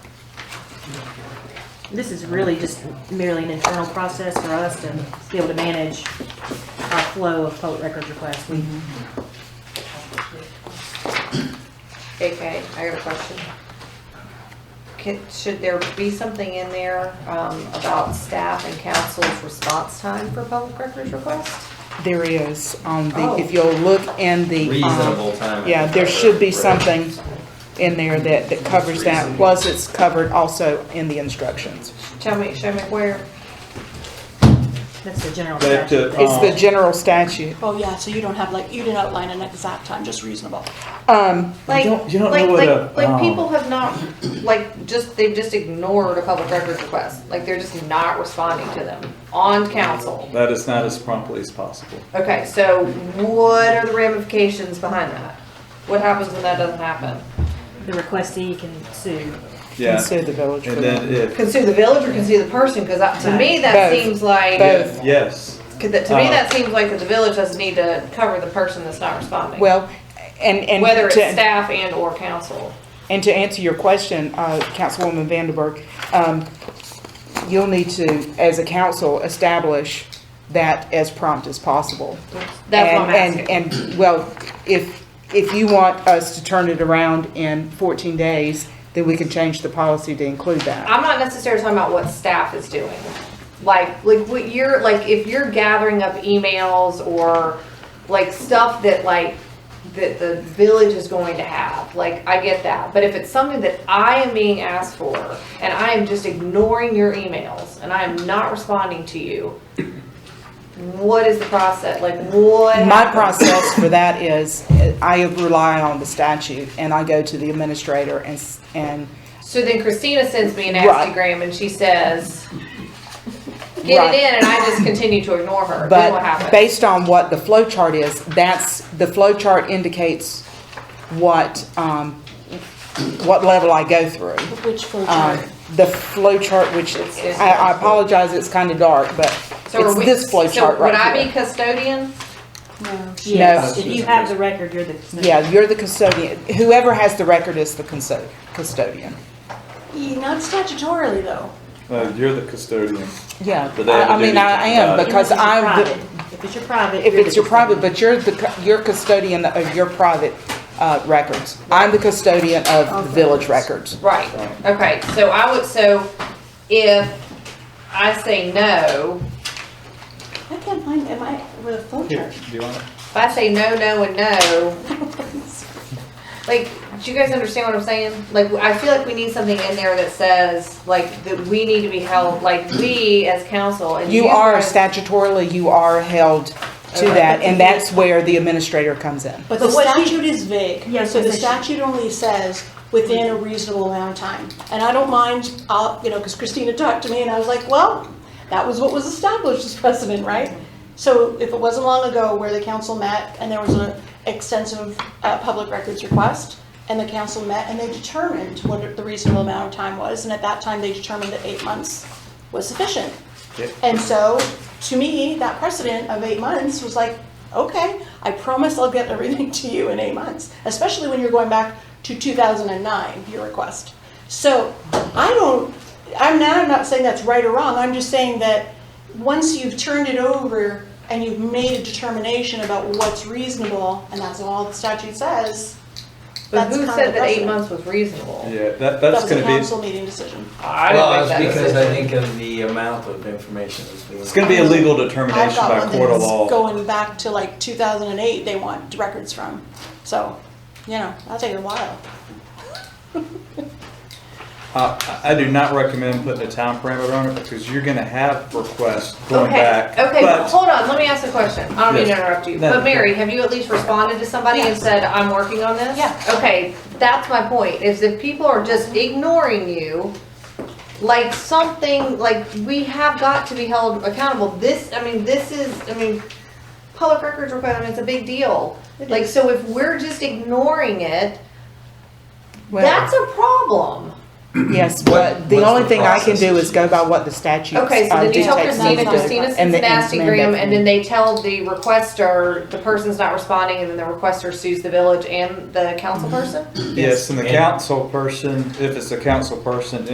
This is really just merely an internal process for us to be able to manage our flow of public records requests. We Mm-hmm. Okay, I got a question. Can, should there be something in there, um, about staff and council's response time for public records requests? There is, on the, Oh. if you'll look in the. um, Reasonable time. Yeah, there should be something in there that, that covers that, Reasonable. plus it's covered also in the instructions. Tell me, show me where. That's the general Back to, statute. It's Oh. the Um, general statute. Oh, yeah, so you don't have like, you didn't outline an exact time, just reasonable. Um, Like, don't- you don't like, know what a, like, like um, people have not, like, just, they've just ignored a public records request. Like, they're just not responding to them on council. That is not as promptly as possible. Okay, so what are the ramifications behind that? What happens when that doesn't happen? The requestee can sue. Yeah. sue the village for And then that. if, Can sue the village or can sue the person? Cause that, to me, that Both. seems like. Both. yes, Cause that, to me, Uh, that seems like that the village doesn't need to cover the person that's not responding. Well, and, and. Whether it's to- staff and or council. And to answer your question, uh, Councilwoman Vanderburg, um, you'll need to, as a council, establish that as prompt as possible. That's what I'm And- asking. And, and, well, if, if you want us to turn it around in 14 days, then we can change the policy to include that. I'm not necessarily talking about what staff is doing. Like, like what you're, like if you're gathering up emails or like stuff that like, that the village is going to have, like, I get that. But if it's something that I am being asked for and I am just ignoring your emails and I am not responding to you, what is the process? Like, what? My happens? process for that is, uh, I rely on the statute, and I go to the administrator and, s- and So then Christina sends me an Instagram and she says, get Right. it in, and I just continue to ignore her. then what But happens? based on what the flow chart is, that's, the flow chart indicates what, um, what level I go through. Which flow Um, chart? the flow chart, which is, I, I apologize, it's kind of dark, but so it's are we, this flow so chart Would I right be here. custodian? No. Yes, No. if you have the record, you're the. Yeah, you're the custodian. Whoever has the record is the conso- custodian. E- Not statutorily, though. Uh, you're the custodian. Yeah, But they have I, I a mean, duty to I am, provide. If because it's your I'm, the- private- If it's your private. If you're it's the your private, custodian. but you're the, cu- you're custodian of your private, uh, records. I'm the custodian of the village records. Right. Okay. So I would. So if I say no, I can't find, am I, with a flow Here, chart? do you want it? if I say no, no, and no, like, do you guys understand what I'm saying? Like, I feel like we need something in there that says, like, that we need to be held, like, we as council and you, You are as- statutorily, you are held to Okay. that, and that's where the administrator comes in. But the But what she- statute is vague. Yeah, So the so she- statute only says within a reasonable amount of time. And I don't mind, uh, you know, because Christina talked to me and I was like, well, that was what was established as precedent, right? So if it wasn't long ago where the council met and there was an extensive uh, public records request and the council met and they determined what the reasonable amount of time was, and at that time they determined that eight months was sufficient. Yeah. And so, to me, that precedent of eight months was like, okay, I promise I'll get everything to you in eight months, especially when you're going back to 2009, your request. So, I don't, I'm not, I'm not saying that's right or wrong, I'm just saying that once you've turned it over and you've made a determination about what's reasonable, and that's all the statute says, But that's who kind of said the that eight precedent. months was reasonable? Yeah, that, That that's was a gonna be, council meeting decision. I Well, don't it's make that because I decision. think of the amount of information that's being. it's gonna be a legal determination I've got by one court of that's law. going back to like 2008 they want records from. So, you know, that'll take a while. Uh, I, I do not recommend putting a time parameter on it because you're gonna have requests going Okay, back. okay, but But hold on, let me ask a question. I don't mean to Yes. interrupt you, No, but Mary, no. have you at least responded to somebody and Yes. said, I'm working on this? Yeah. Okay, that's my point, is if people are just ignoring you, like something, like we have got to be held accountable. This, I mean, this is, I mean, public records requirement is a big deal. Like, so if we're just ignoring it, that's a problem. Yes, but the what's only the thing I can do process? is go by what the statute uh, Okay, dictates. so then you tell me to Christina, do, Christina and sends an the- and Instagram, mandate and then they tell the requester, the person's not responding, and then the requester sues the village and the council person? yes, and the And- council person, if it's a council person,